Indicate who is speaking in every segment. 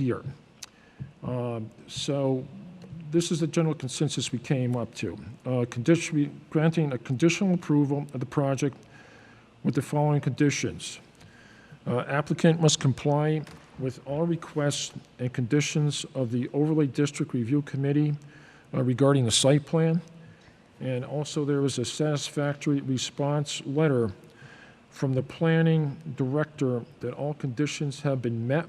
Speaker 1: year. Um, So this is the general consensus we came up to. Uh, condition- we- Granting a conditional approval of the project with the following conditions. Uh, Applicant must comply with all requests and conditions of the Overlay District Review Committee uh, regarding the site plan. And also, there was a satisfactory response letter from the planning director that all conditions have been met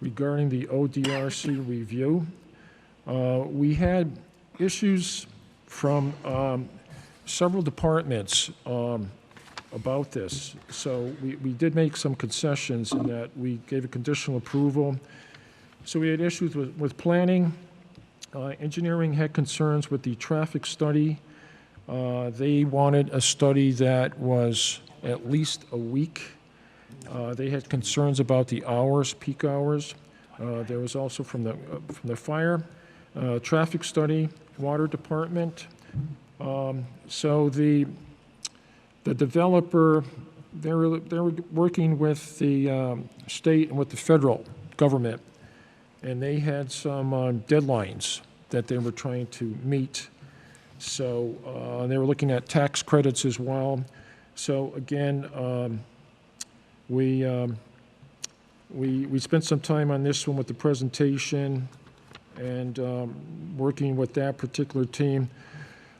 Speaker 1: regarding the ODRC review. Uh, We had issues from um, several departments um, about this, so we we did make some concessions in that we gave a conditional approval. So we had issues with with planning. Uh, Engineering had concerns with the traffic study. Uh, They wanted a study that was at least a week. Uh, They had concerns about the hours, peak hours. Uh, There was also from the, uh, from the fire, uh, traffic study, water department. Um, So the, the developer, they were, they were working with the um, state and with the federal government, and they had some um, deadlines that they were trying to meet. So uh, they were looking at tax credits as well. So again, um, we, um, we, we spent some time on this one with the presentation and um, working with that particular team.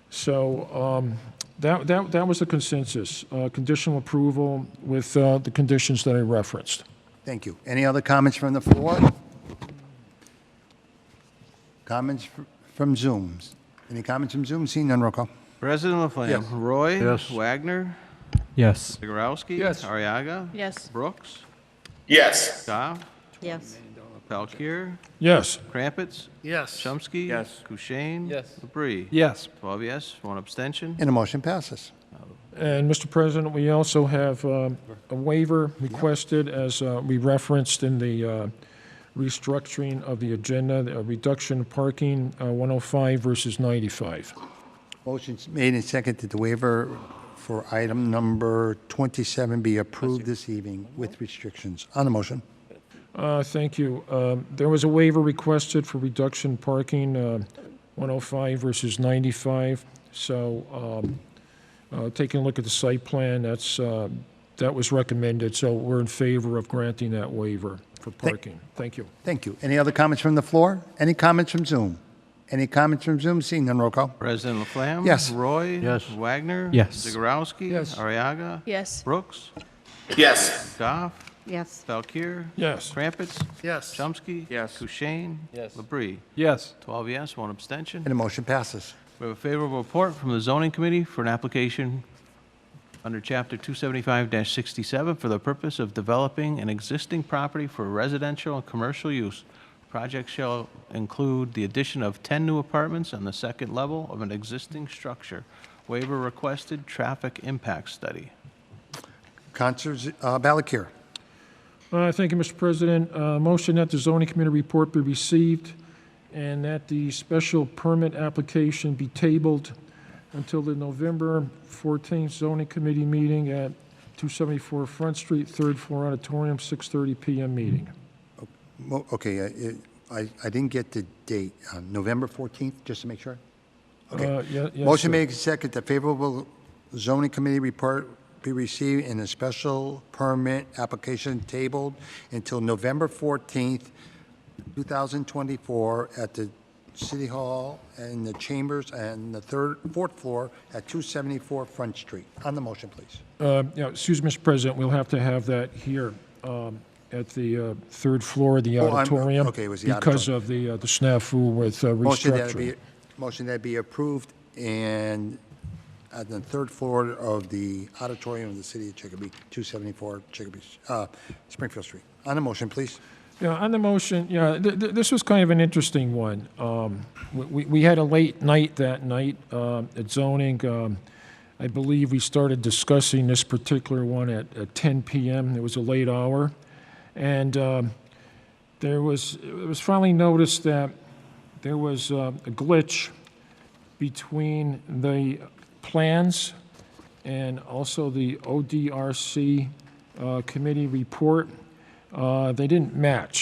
Speaker 1: So um, that, that, that was the consensus, uh, conditional approval with uh, the conditions that I referenced.
Speaker 2: Thank you. Any other comments from the floor? Comments fr- from Zooms? Any comments from Zoom? Seeing none, roll call.
Speaker 3: President Laflamme?
Speaker 2: Yes.
Speaker 3: Roy? Wagner?
Speaker 4: Yes.
Speaker 3: Zagorowski?
Speaker 2: Yes.
Speaker 3: Ariaga?
Speaker 5: Yes.
Speaker 3: Brooks?
Speaker 6: Yes.
Speaker 3: Goff?
Speaker 5: Yes.
Speaker 3: Valkir?
Speaker 1: Yes,
Speaker 3: Krampitz?
Speaker 6: Yes.
Speaker 3: Chomsky? Yes. Kushein?
Speaker 6: Yes.
Speaker 3: Labrie?
Speaker 4: Yes.
Speaker 3: Twelve yes, one abstention.
Speaker 2: And the motion passes.
Speaker 1: and Mr. President, we also have um, a waiver requested as uh, we referenced in the uh, restructuring of the agenda, a reduction of parking, uh, 105 versus 95.
Speaker 2: Motion's made and seconded to waiver for item number 27 be approved this evening with restrictions. On the motion,
Speaker 1: Uh, Thank you. Um, There was a waiver requested for reduction parking, uh, 105 versus 95. So um, uh, taking a look at the site plan, that's, uh, that was recommended, so we're in favor of granting that waiver for parking. Thank you.
Speaker 2: thank you. Any other comments from the floor? Any comments from Zoom? Any comments from Zoom? Seeing none, roll call.
Speaker 3: President Laflamme?
Speaker 2: Yes.
Speaker 3: Roy? Yes. Wagner?
Speaker 4: Yes.
Speaker 3: Zagorowski?
Speaker 1: Yes.
Speaker 3: Ariaga?
Speaker 5: Yes.
Speaker 3: Brooks?
Speaker 6: Yes.
Speaker 3: Goff?
Speaker 5: Yes.
Speaker 3: Valkir?
Speaker 1: Yes.
Speaker 3: Krampitz?
Speaker 6: Yes.
Speaker 3: Chomsky?
Speaker 6: Yes.
Speaker 3: Kushein?
Speaker 6: Yes.
Speaker 3: Labrie?
Speaker 4: Yes.
Speaker 3: Twelve yes, one abstention.
Speaker 2: And the motion passes.
Speaker 3: We have a favorable report from the zoning committee for an application under Chapter 275-67 for the purpose of developing an existing property for residential and commercial use. Project shall include the addition of 10 new apartments on the second level of an existing structure. Waiver requested, traffic impact study.
Speaker 2: Counselor Z- uh, Balakir.
Speaker 1: Uh, Thank you, Mr. President. Uh, Motion that the zoning committee report be received and that the special permit application be tabled until the November 14th zoning committee meeting at 274 Front Street, third floor auditorium, 6:30 PM meeting.
Speaker 2: Mo- Okay, uh, it- I I didn't get the date, uh, November 14th, just to make sure. Okay.
Speaker 1: Uh, ye- yes,
Speaker 2: Motion
Speaker 1: sir.
Speaker 2: made second that favorable zoning committee report be received and a special permit application tabled until November 14th, 2024 at the City Hall and the Chambers and the third, fourth floor at 274 Front Street. On the motion, please.
Speaker 1: Uh, Yeah, excuse me, Mr. President, we'll have to have that here um, at the uh, third floor of the
Speaker 2: Oh, I'm-
Speaker 1: auditorium.
Speaker 2: okay, it was the
Speaker 1: Because of the uh, the snafu with uh,
Speaker 2: Motion that be,
Speaker 1: restructuring.
Speaker 2: motion that be approved and at the third floor of the auditorium of the City of Chicopee, 274 Chicopee, uh, Springfield Street. On the motion, please.
Speaker 1: Yeah, on the motion, yeah, th- th- this was kind of an interesting one. Um, we- We we had a late night that night um, at zoning. Um, I believe we started discussing this particular one at at 10 PM. It was a late hour. And um, there was, it was finally noticed that there was uh, a glitch between the plans and also the ODRC uh, committee report. Uh, They didn't match.